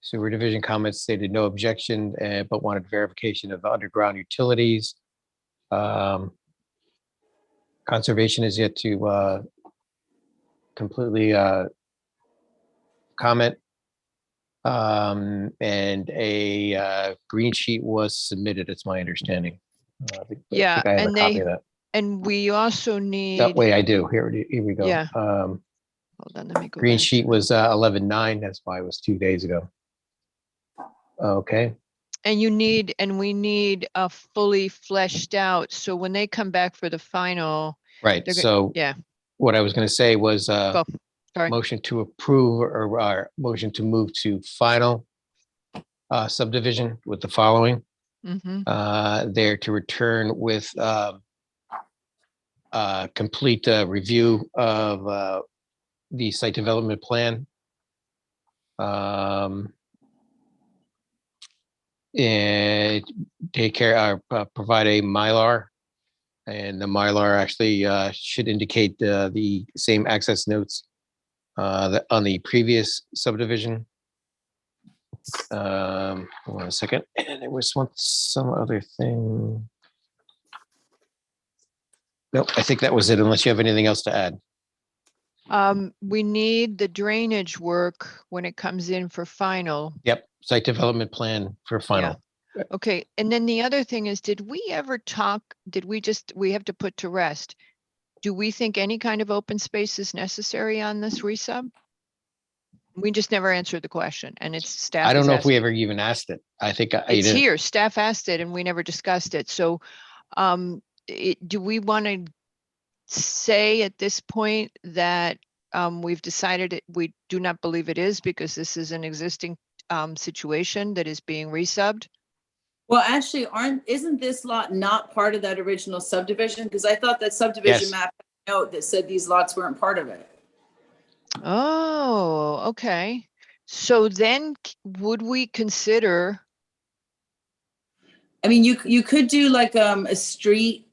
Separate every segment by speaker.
Speaker 1: Sewer Division comments stated no objection, eh, but wanted verification of underground utilities. Um, Conservation is yet to uh, completely uh, comment. Um, And a uh, green sheet was submitted, it's my understanding. Uh, I think- I
Speaker 2: Yeah,
Speaker 1: think I have a
Speaker 2: and
Speaker 1: copy
Speaker 2: they-
Speaker 1: of that.
Speaker 2: And we also need,
Speaker 1: That
Speaker 2: hold
Speaker 1: way I do. Here, it- here we go.
Speaker 2: Yeah.
Speaker 1: Um,
Speaker 2: on, let me go
Speaker 1: Green
Speaker 2: back.
Speaker 1: sheet was uh, eleven nine. That's why it was two days ago. Okay,
Speaker 2: And you need, and we need a fully fleshed out, so when they come back for the final,
Speaker 1: right.
Speaker 2: They're go-
Speaker 1: So
Speaker 2: yeah.
Speaker 1: what I was going to say was uh,
Speaker 2: Go, sorry.
Speaker 1: motion to approve or or motion to move to final uh, subdivision with the following.
Speaker 2: hmm
Speaker 1: uh, there to return with um, uh, complete uh, review of uh, the site development plan. Um, And eh, take care, uh, pro- provide a Mylar. And the Mylar actually uh, should indicate uh, the same access notes uh, that on the previous subdivision. Um, hold on a second, and there was one, some other thing. Nope, I think that was it, unless you have anything else to add.
Speaker 2: Um, we need the drainage work when it comes in for final.
Speaker 1: Yep, site development plan for final.
Speaker 2: Okay, and then the other thing is, did we ever talk, did we just, we have to put to rest? Do we think any kind of open space is necessary on this resub? We just never answered the question and it's staff.
Speaker 1: I don't
Speaker 2: is
Speaker 1: know if we
Speaker 2: asking-
Speaker 1: ever even asked it. I think I I
Speaker 2: It's
Speaker 1: didn't.
Speaker 2: here, staff asked it and we never discussed it, so, um, it, do we want to say at this point that, um, we've decided it, we do not believe it is because this is an existing, um, situation that is being resubbed?
Speaker 3: Well, actually, aren't, isn't this lot not part of that original subdivision? Because I thought that subdivision
Speaker 1: Yes.
Speaker 3: map had a note that said these lots weren't part of it.
Speaker 2: Oh, okay. So then c- would we consider,
Speaker 3: I mean, you, you could do like, um, a street,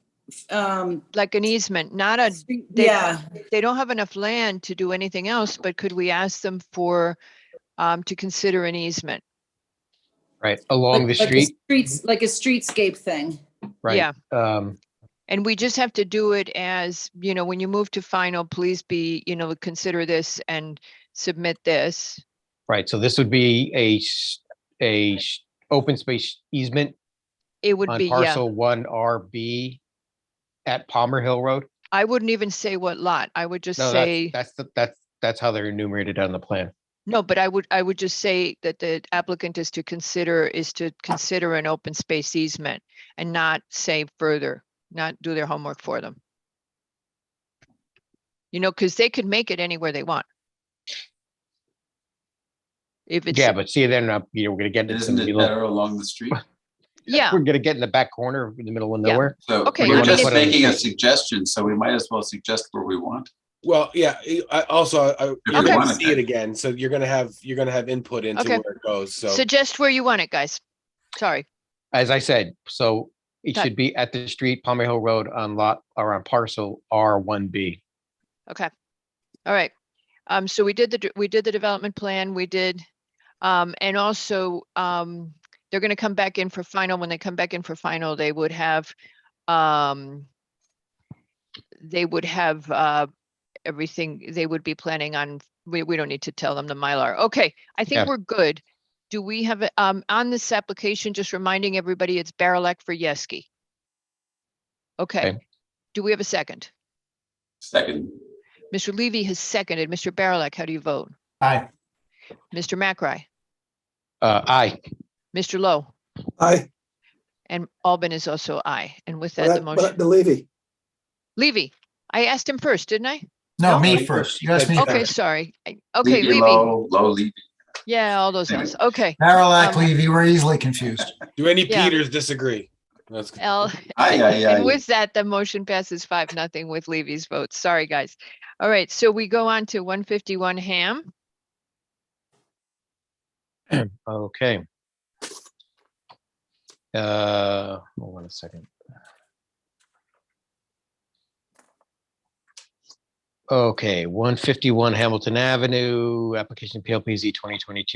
Speaker 3: um,
Speaker 2: like an easement, not a,
Speaker 3: street-
Speaker 2: they-
Speaker 3: yeah,
Speaker 2: they don't have enough land to do anything else, but could we ask them for, um, to consider an easement?
Speaker 1: Right, along the
Speaker 3: like- like a
Speaker 1: street,
Speaker 3: Streets, like a streetscape thing.
Speaker 1: right?
Speaker 2: Yeah,
Speaker 1: Um,
Speaker 2: and we just have to do it as, you know, when you move to final, please be, you know, consider this and submit this.
Speaker 1: Right, so this would be a, s- a s- open space easement
Speaker 2: It would
Speaker 1: on
Speaker 2: be, yeah,
Speaker 1: parcel one RB at Palmer Hill Road?
Speaker 2: I wouldn't even say what lot. I would just
Speaker 1: No, that's,
Speaker 2: say,
Speaker 1: that's, the- that's, that's how they're enumerated on the plan.
Speaker 2: no, but I would, I would just say that the applicant is to consider, is to consider an open space easement and not say further, not do their homework for them. You know, because they could make it anywhere they want. If it's,
Speaker 1: Yeah, but see, they're not, you know, we're gonna get into some.
Speaker 4: Isn't it
Speaker 1: little-
Speaker 4: better along the street?
Speaker 2: yeah,
Speaker 1: We're gonna get in the back corner in the middle of
Speaker 2: Yeah.
Speaker 1: nowhere.
Speaker 4: So
Speaker 2: Okay,
Speaker 1: I
Speaker 4: we're
Speaker 1: mean,
Speaker 4: just
Speaker 1: if-
Speaker 4: making a suggestion, so we might as well suggest where we want.
Speaker 5: Well, yeah, I- I also, I,
Speaker 4: you
Speaker 5: you're gonna
Speaker 4: wanted
Speaker 5: see it
Speaker 4: to.
Speaker 5: again, so you're gonna have, you're gonna have input into
Speaker 2: Okay.
Speaker 5: where it goes, so.
Speaker 2: suggest where you want it, guys. Sorry,
Speaker 1: As I said, so it
Speaker 2: Got-
Speaker 1: should be at the street, Palmy Hill Road on lot or on parcel R one B.
Speaker 2: okay. All right. Um, so we did the, d- we did the development plan, we did, um, and also, um, they're gonna come back in for final. When they come back in for final, they would have, um, they would have, uh, everything, they would be planning on, we, we don't need to tell them the Mylar. Okay, I
Speaker 1: Yeah.
Speaker 2: think we're good. Do we have, a- um, on this application, just reminding everybody, it's Barilak for Yeski. Okay, do we have a second?
Speaker 4: Second,
Speaker 2: Mr. Levy has seconded. Mr. Barilak, how do you vote?
Speaker 5: Aye.
Speaker 2: Mr. McRae,
Speaker 1: Uh, aye,
Speaker 2: Mr. Lowe,
Speaker 6: Aye.
Speaker 2: and Albin is also aye. And with that, the
Speaker 6: But
Speaker 2: motion,
Speaker 6: the Levy.
Speaker 2: Levy, I asked him first, didn't I?
Speaker 7: No,
Speaker 2: No?
Speaker 7: me first. You asked me
Speaker 2: Okay,
Speaker 7: first.
Speaker 2: sorry. I- Okay,
Speaker 4: Levy
Speaker 2: Levy,
Speaker 4: low, low Levy.
Speaker 2: yeah, all those
Speaker 4: Levy.
Speaker 2: ones. Okay.
Speaker 7: Barilak,
Speaker 2: Um,
Speaker 7: Levy, we're easily confused.
Speaker 5: Do any
Speaker 2: Yeah.
Speaker 5: Peters disagree? That's good.
Speaker 2: L,
Speaker 4: Aye, aye, aye.
Speaker 2: and with that, the motion passes five, nothing with Levy's vote. Sorry, guys. All right, so we go on to one fifty-one Ham.
Speaker 1: okay. Uh, hold on a second. Okay, one fifty-one Hamilton Avenue, application PLPZ twenty twenty-two